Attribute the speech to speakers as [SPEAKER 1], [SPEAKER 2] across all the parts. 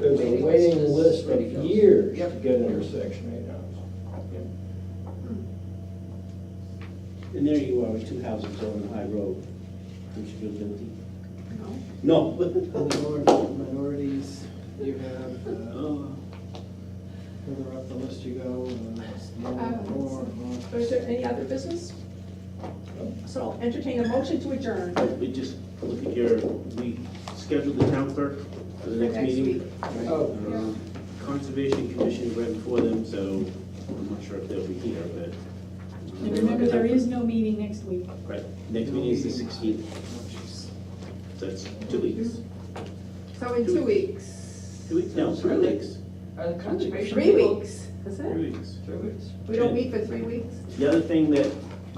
[SPEAKER 1] There's a waiting list of years to
[SPEAKER 2] Yep.
[SPEAKER 1] get into section eight housing.
[SPEAKER 3] And there you are with two houses on the high road. Don't you feel guilty? No.
[SPEAKER 2] Minor- Minorities, you have, uh, further up the list you go, and it's more, and more, and more.
[SPEAKER 4] Is there any other business? So entertain a motion to adjourn.
[SPEAKER 3] We just look at your, we scheduled the town clerk for the next
[SPEAKER 5] Next
[SPEAKER 3] meeting.
[SPEAKER 2] Oh,
[SPEAKER 3] Um, Conservation Commission right before them, so I'm not sure if they'll be here, but. um,
[SPEAKER 5] And remember, there is no meeting next week.
[SPEAKER 3] Right, next meeting is the sixteenth, so it's two weeks.
[SPEAKER 5] Mm-hmm.
[SPEAKER 6] So in two weeks,
[SPEAKER 3] Two weeks, no, three weeks.
[SPEAKER 7] Are the conservation
[SPEAKER 6] three
[SPEAKER 7] people?
[SPEAKER 6] weeks, is it?
[SPEAKER 3] Three weeks.
[SPEAKER 7] Three weeks.
[SPEAKER 6] We don't meet for three weeks?
[SPEAKER 3] The other thing that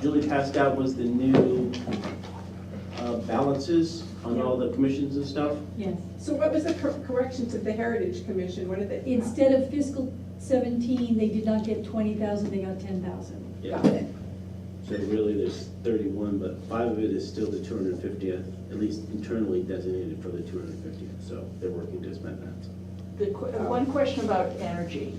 [SPEAKER 3] Julie passed out was the new uh, balances on all the commissions and stuff.
[SPEAKER 5] Yes.
[SPEAKER 4] So what was the cor- correction to the Heritage Commission? What did they,
[SPEAKER 5] Instead of fiscal seventeen, they did not get twenty thousand, they got ten thousand.
[SPEAKER 3] Yeah.
[SPEAKER 4] got it?
[SPEAKER 3] So really, there's thirty-one, but five of it is still the two hundred and fiftieth, at least internally designated for the two hundred and fiftieth, so they're working to spend that.
[SPEAKER 7] The, que- one question about energy.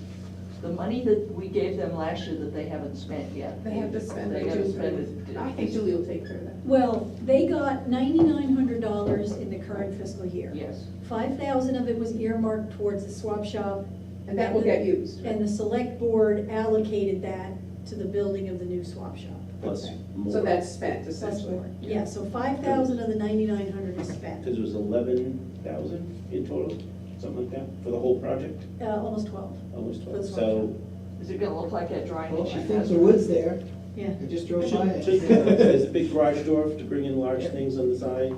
[SPEAKER 7] The money that we gave them last year that they haven't spent yet.
[SPEAKER 4] They have to spend
[SPEAKER 7] They
[SPEAKER 4] it.
[SPEAKER 7] haven't spent it.
[SPEAKER 4] I think Julie will take care of that.
[SPEAKER 5] Well, they got ninety-nine hundred dollars in the current fiscal year.
[SPEAKER 7] Yes.
[SPEAKER 5] Five thousand of it was earmarked towards the swap shop,
[SPEAKER 4] And that will get used.
[SPEAKER 5] and the select board allocated that to the building of the new swap shop.
[SPEAKER 3] Plus
[SPEAKER 4] Okay.
[SPEAKER 3] more.
[SPEAKER 4] So that's spent
[SPEAKER 5] Plus
[SPEAKER 4] essentially.
[SPEAKER 5] more. Yeah, so five thousand of the ninety-nine hundred is spent,
[SPEAKER 3] Because it was eleven thousand in total, something like that, for the whole project,
[SPEAKER 5] uh, almost twelve,
[SPEAKER 3] almost twelve,
[SPEAKER 5] That's
[SPEAKER 3] so.
[SPEAKER 7] Is it gonna look like that drawing
[SPEAKER 2] Well,
[SPEAKER 7] that
[SPEAKER 2] she
[SPEAKER 7] you
[SPEAKER 2] thinks
[SPEAKER 7] has?
[SPEAKER 2] the wood's there,
[SPEAKER 5] yeah.
[SPEAKER 2] I just
[SPEAKER 3] It
[SPEAKER 2] drove by
[SPEAKER 3] should-
[SPEAKER 2] it.
[SPEAKER 3] should- There's a big garage door to bring in large things on the side,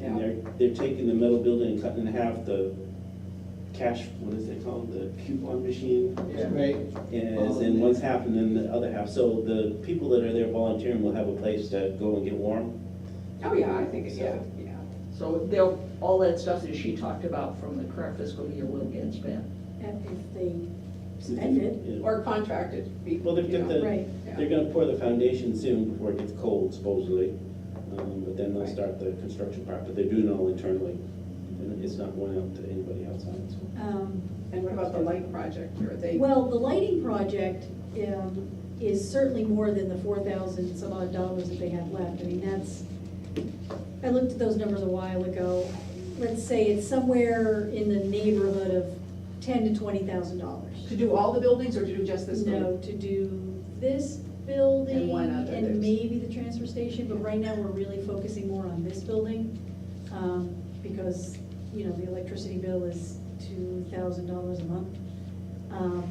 [SPEAKER 4] Yeah.
[SPEAKER 3] and they're, they're taking the metal building and cutting in half the cash, what is it called, the coupon machine?
[SPEAKER 2] Right,
[SPEAKER 3] is in one's half and then the other half. So the people that are there volunteering will have a place to go and get warm.
[SPEAKER 4] Oh, yeah, I think, it- yeah, yeah.
[SPEAKER 7] So they'll, all that stuff that she talked about from the current fiscal year will get spent.
[SPEAKER 5] And If they spend it,
[SPEAKER 3] Yeah.
[SPEAKER 4] Or contracted. be-
[SPEAKER 3] Well, they've
[SPEAKER 4] you
[SPEAKER 3] got
[SPEAKER 4] know,
[SPEAKER 3] the-
[SPEAKER 5] right.
[SPEAKER 4] yeah.
[SPEAKER 3] They're gonna pour the foundation soon before it gets cold supposedly. Um, But then they'll
[SPEAKER 4] Right.
[SPEAKER 3] start the construction part, but they're doing it all internally. And It's not going out to anybody outside, so.
[SPEAKER 5] Um,
[SPEAKER 4] And what about the light project? Are they?
[SPEAKER 5] Well, the lighting project um, is certainly more than the four thousand some odd dollars that they have left. I mean, that's, I looked at those numbers a while ago. Let's say it's somewhere in the neighborhood of ten to twenty thousand dollars.
[SPEAKER 4] To do all the buildings or to do just this
[SPEAKER 5] No,
[SPEAKER 4] building?
[SPEAKER 5] to do this building
[SPEAKER 4] And one other
[SPEAKER 5] and
[SPEAKER 4] that's-
[SPEAKER 5] maybe the transfer station, but right now we're really focusing more on this building. um, Because, you know, the electricity bill is two thousand dollars a month. Um,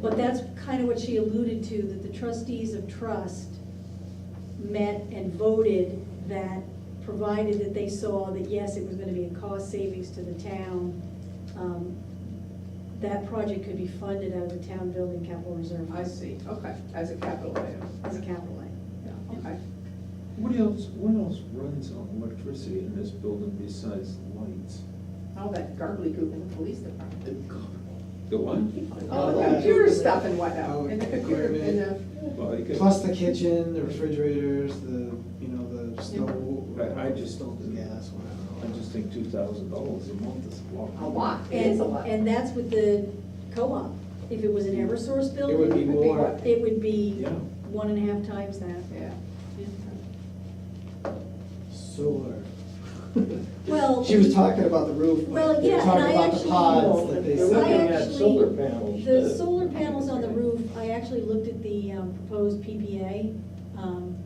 [SPEAKER 5] but that's kind of what she alluded to, that the trustees of trust met and voted that, provided that they saw that, yes, it was gonna be a cost savings to the town, um, that project could be funded out of the town building capital reserve
[SPEAKER 4] I see, okay, as a capital item,
[SPEAKER 5] as a capital item.
[SPEAKER 4] yeah, okay.
[SPEAKER 8] What else, what else runs on electricity in this building besides lights?
[SPEAKER 4] All that garbly goop in the police department.
[SPEAKER 8] The what?
[SPEAKER 4] All the
[SPEAKER 2] Oh, yeah.
[SPEAKER 4] computer stuff and whatnot,
[SPEAKER 2] Oh,
[SPEAKER 4] and the computer, and the,
[SPEAKER 8] Well, you could-
[SPEAKER 2] plus the kitchen, the refrigerators, the, you know, the stove.
[SPEAKER 8] I- I just-
[SPEAKER 2] Yeah, that's what I
[SPEAKER 8] I
[SPEAKER 2] don't know.
[SPEAKER 8] just think two thousand dollars a month is a lot.
[SPEAKER 4] a lot, it is
[SPEAKER 5] And,
[SPEAKER 4] a lot.
[SPEAKER 5] and that's with the co-op. If it was an Eversource
[SPEAKER 2] It would be
[SPEAKER 5] building,
[SPEAKER 2] more,
[SPEAKER 5] it would be
[SPEAKER 8] Yeah.
[SPEAKER 5] one and a half times that.
[SPEAKER 4] Yeah.
[SPEAKER 2] solar.
[SPEAKER 5] Well,
[SPEAKER 2] She was talking about the roof.
[SPEAKER 5] Well,
[SPEAKER 2] They were
[SPEAKER 5] yeah, and
[SPEAKER 2] talking
[SPEAKER 5] I
[SPEAKER 2] about the
[SPEAKER 5] actually-
[SPEAKER 2] pods that they
[SPEAKER 1] They're
[SPEAKER 2] sell.
[SPEAKER 5] I
[SPEAKER 1] looking at
[SPEAKER 5] actually-
[SPEAKER 1] solar panels.
[SPEAKER 5] The
[SPEAKER 1] to-
[SPEAKER 5] solar panels on the roof, I actually looked at the um, proposed PPA, um,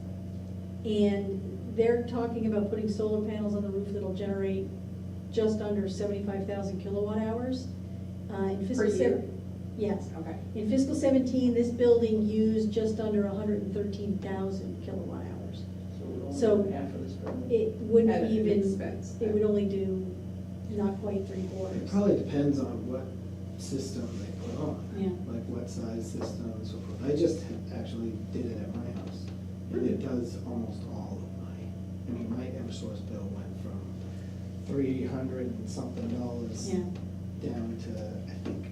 [SPEAKER 5] and they're talking about putting solar panels on the roof that'll generate just under seventy-five thousand kilowatt hours. Uh, in fiscal
[SPEAKER 4] Per
[SPEAKER 5] sev-
[SPEAKER 4] year?
[SPEAKER 5] Yes.
[SPEAKER 4] Okay.
[SPEAKER 5] In fiscal seventeen, this building used just under hundred and thirteen thousand kilowatt hours. So-
[SPEAKER 7] we're only After this building.
[SPEAKER 5] It
[SPEAKER 4] At
[SPEAKER 5] wouldn't
[SPEAKER 4] an
[SPEAKER 5] even,
[SPEAKER 4] expense.
[SPEAKER 5] it would only do not quite three
[SPEAKER 2] It
[SPEAKER 5] quarters.
[SPEAKER 2] probably depends on what system they put on.
[SPEAKER 5] Yeah.
[SPEAKER 2] Like what size system and so forth. I just ha- actually did it at my house. And it does almost all of my, I mean, my Eversource bill went from three hundred and something dollars
[SPEAKER 5] Yeah,
[SPEAKER 2] down to, I think,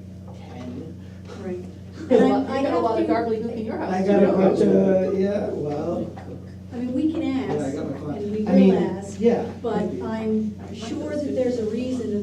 [SPEAKER 2] ten.
[SPEAKER 5] right.
[SPEAKER 4] You
[SPEAKER 5] And I-
[SPEAKER 4] got
[SPEAKER 5] I
[SPEAKER 4] a lot of
[SPEAKER 5] have to-
[SPEAKER 4] garbly goop in your house.
[SPEAKER 2] I got a
[SPEAKER 4] too.
[SPEAKER 2] bunch of, yeah, well,
[SPEAKER 5] I mean, we can
[SPEAKER 2] yeah, I
[SPEAKER 5] ask,
[SPEAKER 2] got my.
[SPEAKER 5] and we
[SPEAKER 2] I mean,
[SPEAKER 5] will ask,
[SPEAKER 2] Yeah.
[SPEAKER 5] but
[SPEAKER 2] maybe.
[SPEAKER 5] I'm sure that there's a reason